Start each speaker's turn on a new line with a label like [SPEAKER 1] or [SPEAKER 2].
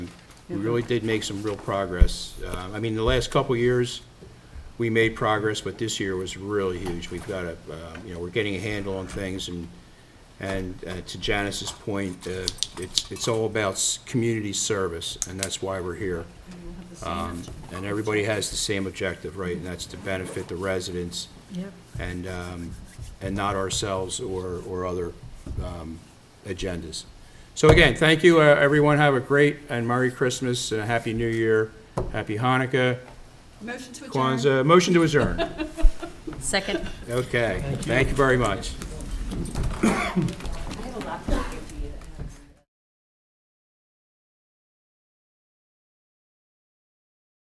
[SPEAKER 1] We really did make some real progress. Uh, I mean, the last couple years, we made progress, but this year was really huge. We've got a, uh, you know, we're getting a handle on things, and, and uh, to Janice's point, uh, it's, it's all about s- community service, and that's why we're here. Um, And everybody has the same objective, right, and that's to benefit the residents
[SPEAKER 2] Yep.
[SPEAKER 1] and, um, and not ourselves or, or other um, agendas. So again, thank you, uh, everyone, have a great and Merry Christmas, and a Happy New Year, Happy Hanukkah,
[SPEAKER 3] Motion to adjourn.
[SPEAKER 1] Kwanzaa, motion to adjourn.
[SPEAKER 2] Second.
[SPEAKER 1] Okay, thank you very much.